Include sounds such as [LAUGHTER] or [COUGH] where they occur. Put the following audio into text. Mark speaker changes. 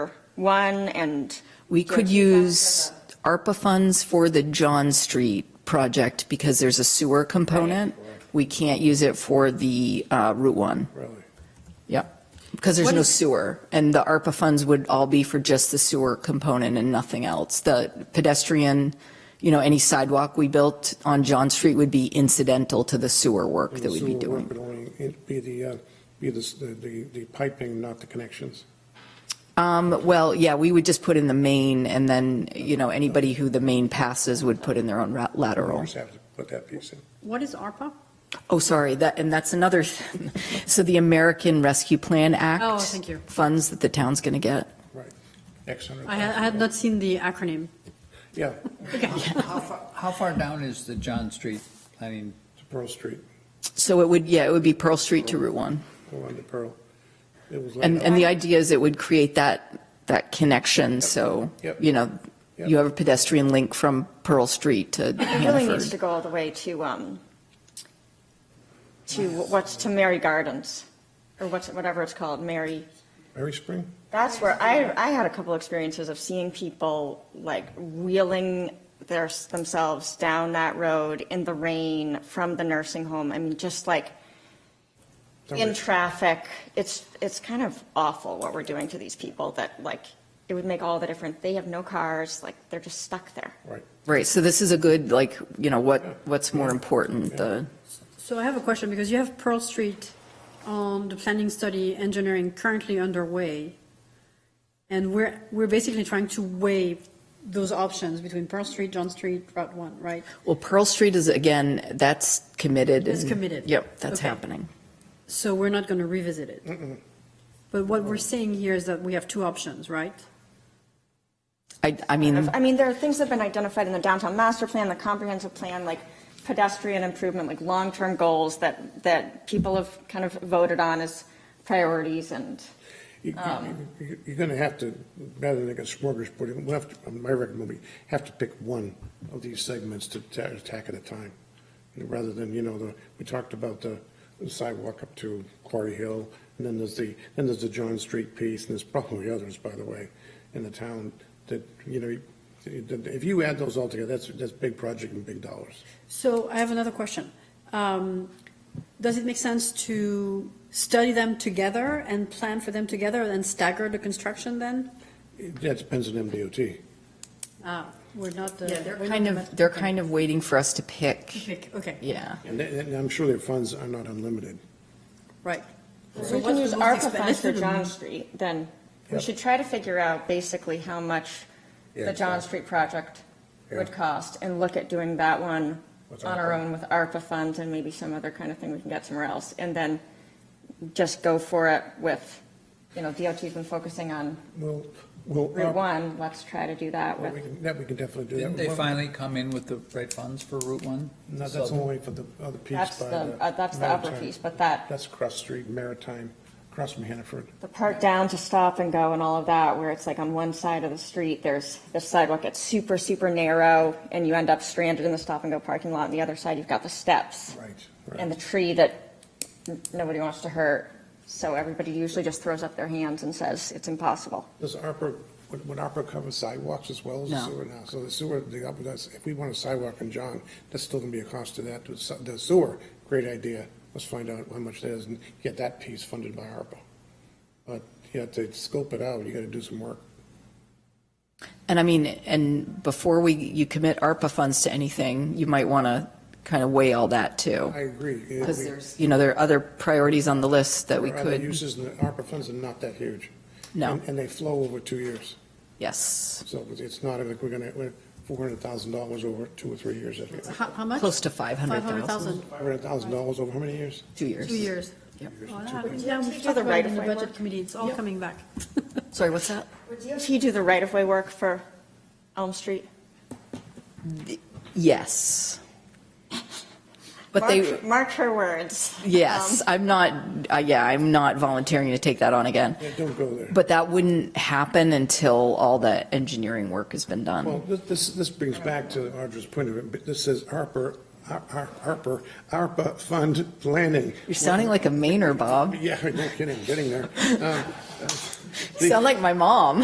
Speaker 1: one and,
Speaker 2: We could use ARPA funds for the John Street project because there's a sewer component. We can't use it for the uh, Route 1
Speaker 3: really.
Speaker 2: because there's
Speaker 1: What
Speaker 2: no
Speaker 1: is-
Speaker 2: sewer. And the ARPA funds would all be for just the sewer component and nothing else. The pedestrian, you know, any sidewalk we built on John Street would be incidental to the sewer work that we'd be
Speaker 3: Sewer
Speaker 2: doing.
Speaker 3: work would only- It'd be the, uh, be the, s- the- the the piping, not the connections.
Speaker 2: Um, Well, yeah, we would just put in the main and then, you know, anybody who the main passes would put in their own ra-
Speaker 3: You
Speaker 2: lateral.
Speaker 3: just have to put that piece in.
Speaker 4: What is ARPA?
Speaker 2: Oh, sorry, that, and that's another, so the American Rescue Plan Act.
Speaker 4: Oh, thank you.
Speaker 2: Funds that the town's going to get.
Speaker 3: X hundred
Speaker 4: I had,
Speaker 3: thousand.
Speaker 4: I had not seen the acronym.
Speaker 3: Yeah,
Speaker 5: How far, how far down is the John Street planning?
Speaker 3: to Pearl Street,
Speaker 2: So it would, yeah, it would be Pearl Street to Route 1.
Speaker 3: go on to Pearl. It was
Speaker 2: And,
Speaker 3: laid
Speaker 2: and
Speaker 3: out.
Speaker 2: the idea is it would create that, that connection, so,
Speaker 3: Yep.
Speaker 2: you know,
Speaker 3: Yep.
Speaker 2: you have a pedestrian link from Pearl Street to
Speaker 1: it really needs to
Speaker 2: Hannaford.
Speaker 1: go all the way to, um, to what's, to Mary Gardens, or what's, whatever it's called, Mary.
Speaker 3: Mary Spring?
Speaker 1: That's where I, I had a couple experiences of seeing people like wheeling their, themselves down that road in the rain from the nursing home. I mean, just like in traffic. It's, it's kind of awful what we're doing to these people that like, it would make all the difference. They have no cars, like they're just stuck there.
Speaker 3: Right.
Speaker 2: Right, so this is a good, like, you know, what, what's more important, the,
Speaker 4: So I have a question because you have Pearl Street on the planning study engineering currently underway. And we're, we're basically trying to weigh those options between Pearl Street, John Street, Route 1, right?
Speaker 2: well, Pearl Street is, again, that's committed.
Speaker 4: It's
Speaker 2: and-
Speaker 4: committed.
Speaker 2: Yep, that's
Speaker 4: Okay.
Speaker 2: happening.
Speaker 4: So we're not going to revisit it. But what we're saying here is that we have two options, right?
Speaker 2: I, I mean,
Speaker 1: I mean, there are things that have been identified in the downtown master plan, the comprehensive plan, like pedestrian improvement, like long-term goals that, that people have kind of voted on as priorities and.
Speaker 3: You-
Speaker 1: Um,
Speaker 3: you- you- You're going to have to, rather than like a smorgasbord, we'll have to, uh, my recommendation would be, have to pick one of these segments to ta- attack at a time, You know, rather than, you know, the, we talked about the sidewalk up to Quarry Hill, and then there's the, then there's the John Street piece, and there's probably others, by the way, in the town, that, you know, if you add those all together, that's, that's big project and big dollars.
Speaker 4: So I have another question. Um, Does it make sense to study them together and plan for them together and stagger the construction then?
Speaker 3: That depends on MDOT.
Speaker 4: Ah, We're not the.
Speaker 2: they're kind of, they're kind of waiting for us to pick,
Speaker 4: Pick, [LAUGHS] Okay,
Speaker 2: yeah.
Speaker 3: And they- and I'm sure their funds are not unlimited.
Speaker 4: right.
Speaker 1: We
Speaker 4: So what's
Speaker 1: can
Speaker 4: the
Speaker 1: use
Speaker 4: most
Speaker 1: ARPA
Speaker 4: expen-
Speaker 1: funds
Speaker 4: let's
Speaker 1: for
Speaker 4: do the-
Speaker 1: John Street, then we
Speaker 3: Yep.
Speaker 1: should try to figure out basically how much
Speaker 3: Yeah.
Speaker 1: the John Street project would
Speaker 3: Yeah.
Speaker 1: cost and look at doing that one
Speaker 3: With
Speaker 1: on our
Speaker 3: ARPA.
Speaker 1: own with ARPA funds and maybe some other kind of thing we can get somewhere else. And then just go for it with, you know, DOT's been focusing on
Speaker 3: Well, well.
Speaker 1: Route 1, let's try to do that
Speaker 3: Well, we
Speaker 1: with,
Speaker 3: can- That we can definitely do.
Speaker 5: Didn't they
Speaker 3: Well,
Speaker 5: finally come in with the right funds for Route 1?
Speaker 3: No, that's only for the other piece.
Speaker 1: that's
Speaker 3: by
Speaker 1: the, uh, that's the upper
Speaker 3: Maritime.
Speaker 1: piece, but that,
Speaker 3: That's across street, Maritime, across from Hannaford.
Speaker 1: the part down to stop and go and all of that, where it's like on one side of the street, there's, this sidewalk gets super, super narrow, and you end up stranded in the stop and go parking lot, and the other side, you've got the steps.
Speaker 3: Right,
Speaker 1: and
Speaker 3: right.
Speaker 1: the tree that n- nobody wants to hurt. So everybody usually just throws up their hands and says, it's impossible.
Speaker 3: Does ARPA, would would ARPA cover sidewalks as well as the
Speaker 2: No.
Speaker 3: sewer now? So the sewer, the, ARPA does- if we want a sidewalk in John, that's still going to be a cost to that. The se- The sewer, great idea. Let's find out how much that is and get that piece funded by ARPA. But you have to scope it out. You got to do some work.
Speaker 2: And I mean, and before we, you commit ARPA funds to anything, you might want to kind of weigh all that too.
Speaker 3: I agree. Yeah,
Speaker 2: Because
Speaker 3: we-
Speaker 2: there's, you know, there are other priorities on the list that we
Speaker 3: Our other
Speaker 2: could,
Speaker 3: uses, and the ARPA funds are not that huge.
Speaker 2: No.
Speaker 3: And- And they flow over two years.
Speaker 2: yes,
Speaker 3: So it's not like we're going to, we're $400,000 over two or three years. I think.
Speaker 4: How, how much?
Speaker 2: close to 500,000,
Speaker 4: 500,000,
Speaker 3: $500,000 over how many years?
Speaker 2: two years.
Speaker 4: two years. Oh, Yeah,
Speaker 1: Do
Speaker 4: we
Speaker 1: the
Speaker 4: talked about it in the
Speaker 1: right-of-way
Speaker 4: budget
Speaker 1: work?
Speaker 4: committee, it's all coming back.
Speaker 2: Sorry, what's that?
Speaker 1: Would DOT do the right-of-way work for Elm Street?
Speaker 2: Yes. But they,
Speaker 1: Mark- Mark her words.
Speaker 2: yes,
Speaker 1: Um,
Speaker 2: I'm not, uh, yeah, I'm not volunteering to take that on again.
Speaker 3: Yeah, Don't go there.
Speaker 2: But that wouldn't happen until all the engineering work has been done.
Speaker 3: Well, this- this, this brings back to Audra's point of it, but this says ARPA, Ar- Ar- ARPA, ARPA fund planning. [LAUGHS]
Speaker 2: You're sounding like a Mainer, Bob.
Speaker 3: Yeah, no kidding, getting there. Um,
Speaker 2: You sound like my mom.